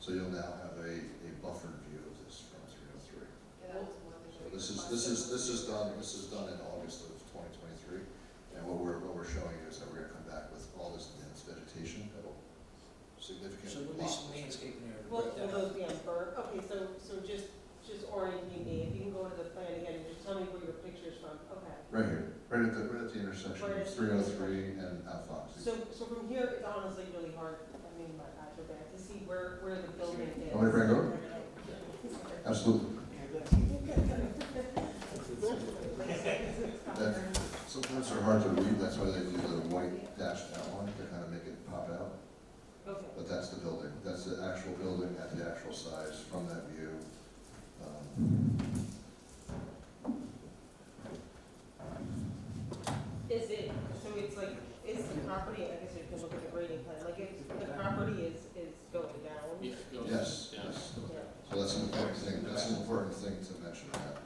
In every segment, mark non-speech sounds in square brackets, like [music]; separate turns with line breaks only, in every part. So you'll now have a, a buffered view of this from three oh three.
Yeah, that was one
So
thing.
this is, this is, this is done, this is done in August of twenty twenty-three. And what we're, what we're showing you is that we're gonna come back with all this dense vegetation that'll
So
significantly
at
block.
least landscaping there to
Well, well,
break that up.
those, yeah, bur, okay, so, so just, just orienting me, if you can go to the plan again, and just tell me where your picture's from, okay.
Right here, right at the, right at the intersection of
Right at the
three oh three and Alphox.
So, so from here, it's honestly really hard, I mean, my eyes are bad, to see where, where the building is.
Want me to bring it
[laughs]
over? Absolutely. Sometimes they're hard to read, that's why they do the white dashed outline to kind of make it pop out.
Okay,
But that's the building, that's the actual building at the actual size from that view. Um,
is it, so it's like, is the property, I guess you can look at the grading plan, like, if the property is, is going down?
Yeah, it goes-
Yes,
yeah.
yes.
Yeah.
So that's an important thing, that's an important thing to mention. that.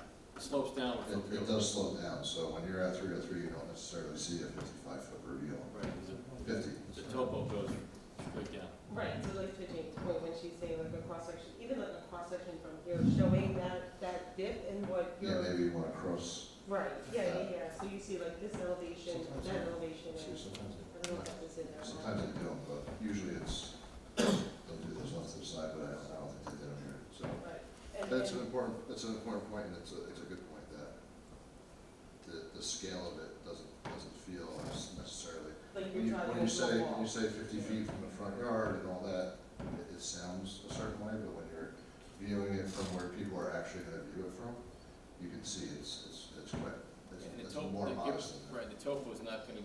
Slopes down.
It, it does slow down, so when you're at three oh three, you don't necessarily see a fifty-five foot reveal.
Right, 'cause
Fifty,
the, the topo goes straight down.
Right, so like to Jane's point, when she's saying like a cross section, even like a cross section from here, showing that, that dip and what
yeah,
you're.
maybe you wanna cross,
Right, yeah, yeah, yeah, so you see like this elevation,
Sometimes,
that
yeah.
elevation,
see,
and
sometimes,
I
it-
don't know if that was in there. or not.
sometimes they don't, but usually it's, they'll do this off to the side, but I don't, I don't think they did them here, so.
Right, and,
That's an
and,
important, that's an important point, and it's a, it's a good point, that the, the scale of it doesn't, doesn't feel as necessarily.
like
When you,
you're trying to.
when you
go
say, when
wall.
you say fifty feet from the front yard and all that, it, it sounds a certain way, but when you're viewing it from where people are actually gonna view it from, you can see it's, it's, it's quite,
And the
it's, it's
topo-
more
the-
modest than that.
Right, the topo is not gonna,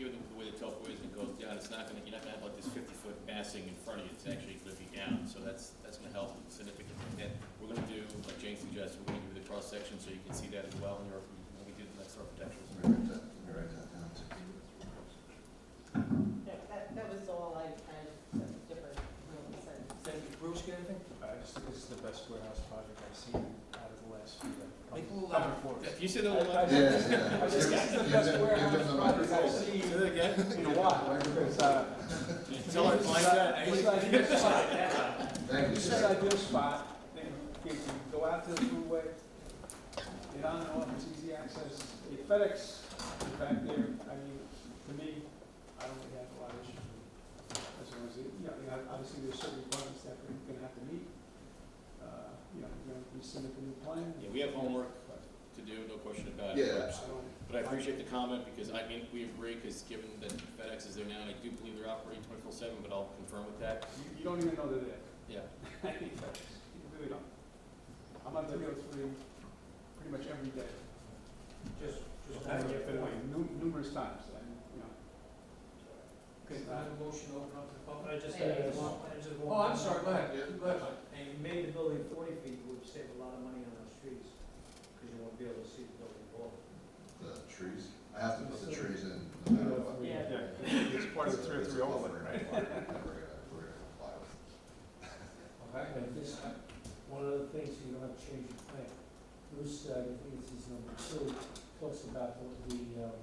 given the way the topo is, it goes down, it's not gonna, you're not gonna have like this fifty-foot massing in front of you, it's actually gonna be down, so that's, that's gonna help significantly. And we're gonna do, like Jane suggested, we're gonna do the cross-section so you can see that as well in your, when we do the next architectural.
Let me write that, let me write that down too.
Yeah, that, that was all I kind of, that's different, you know, sense.
Thank you. Bruce, get anything?
I just, this is the best warehouse project I've seen out of the last few. uh,
Make a little
couple
louder.
quarters.
You said the one.
I- I-
Yeah,
this-
yeah.
I just- This is the
Give
best
them- give
warehouse
them the
project I've
microphone.
seen
Say that again?
in a while. It's, uh,
Tell her,
this is
like
a-
that.
This is an ideal spot.
Thank you,
This is
sir.
an ideal spot. You can go out to the freeway, get on and off, it's easy access. The FedEx is back there, I mean, to me, I don't really have a lot of issues with it. As long as, it- you know, I mean, obviously there's certain requirements that we're gonna have to meet. Uh, You know, we're gonna submit the new plan.
Yeah, we have homework to do, no question about it.
Yeah,
I don't-
But I appreciate the comment, because I mean, we agree, because given that FedEx is there now, and I do believe they're operating twenty-four seven, but I'll confirm with that,
You, you don't even know they're there.
yeah.
You [laughs] really don't. I'm on three oh three pretty much every day.
Just, just
I
back
get
up
that way
point.
nu- numerous times, and, you know.
Okay, I have a motion to open up the
I
public.
just
Yeah, yeah.
had a small- I just
Oh,
want-
I'm sorry, go ahead,
Yeah.
go ahead.
And you made the building forty feet, you would save a lot of money on those trees, because you won't be able to see the building wall.
The trees, I have to put the trees in no matter what.
Yeah.
It's part of the three oh
It's a
three overlay,
buffer
right?
and we're gonna- we're gonna- we're gonna comply with it.
Okay.
And this, one of the things, you don't have to change your plan. Bruce, uh, I think this is number two, talks about the, the, um,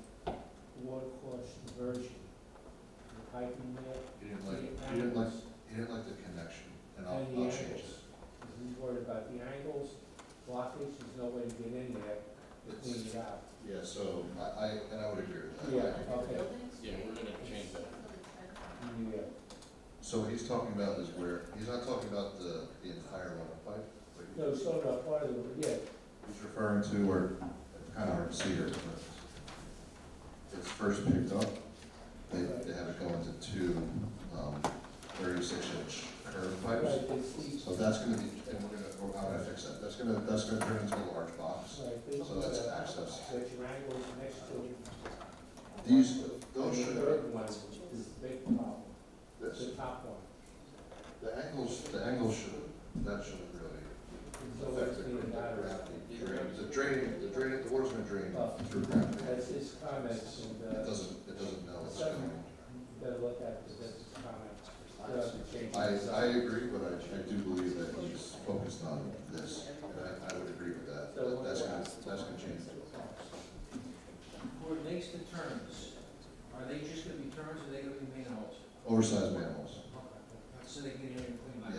water course diversion, the piping there.
You didn't
to
like,
the
you didn't like,
angles,
you didn't like the connection, and I'll,
And the
I'll change it.
angles. Because he's worried about the angles, blockage, there's no way to get in there to
It's-
clean it out.
Yeah, so I, I, and I would agree with that.
Yeah.
Like the
okay.
buildings,
Yeah, we're gonna change that.
Yeah.
So what he's talking about is where, he's not talking about the, the entire runoff pipe. but
No, so, no, part of the, yeah,
He's referring to where, it's kind of hard to see here, but it's first picked up. They, they have it go into two, um, thirty-six inch curved pipes.
right, there's these,
So that's gonna be, and we're gonna, we're gonna fix that, that's gonna, that's gonna turn into a large box.
right, there's.
So that's access.
But your angles next to it.
These,
And
those
the
should,
third one is the big problem,
this,
the top one.
the angles, the angles should, that shouldn't really
It's always
affect the
been
gra- the
that,
gravity. drain- The drain, the drain, the water's gonna drain through gravity.
that's his comments and,
It
uh,
doesn't, it doesn't know what's going
better look at this, that's his comments. You
on.
have to change
I,
this up.
I agree, but I, I do believe that he's focused on this, and I, I would agree with that, that, that's gonna, that's gonna change.
Who makes the turns? Are they just gonna be turns, or are they gonna be manholes?
Oversized manholes,
So they can get in and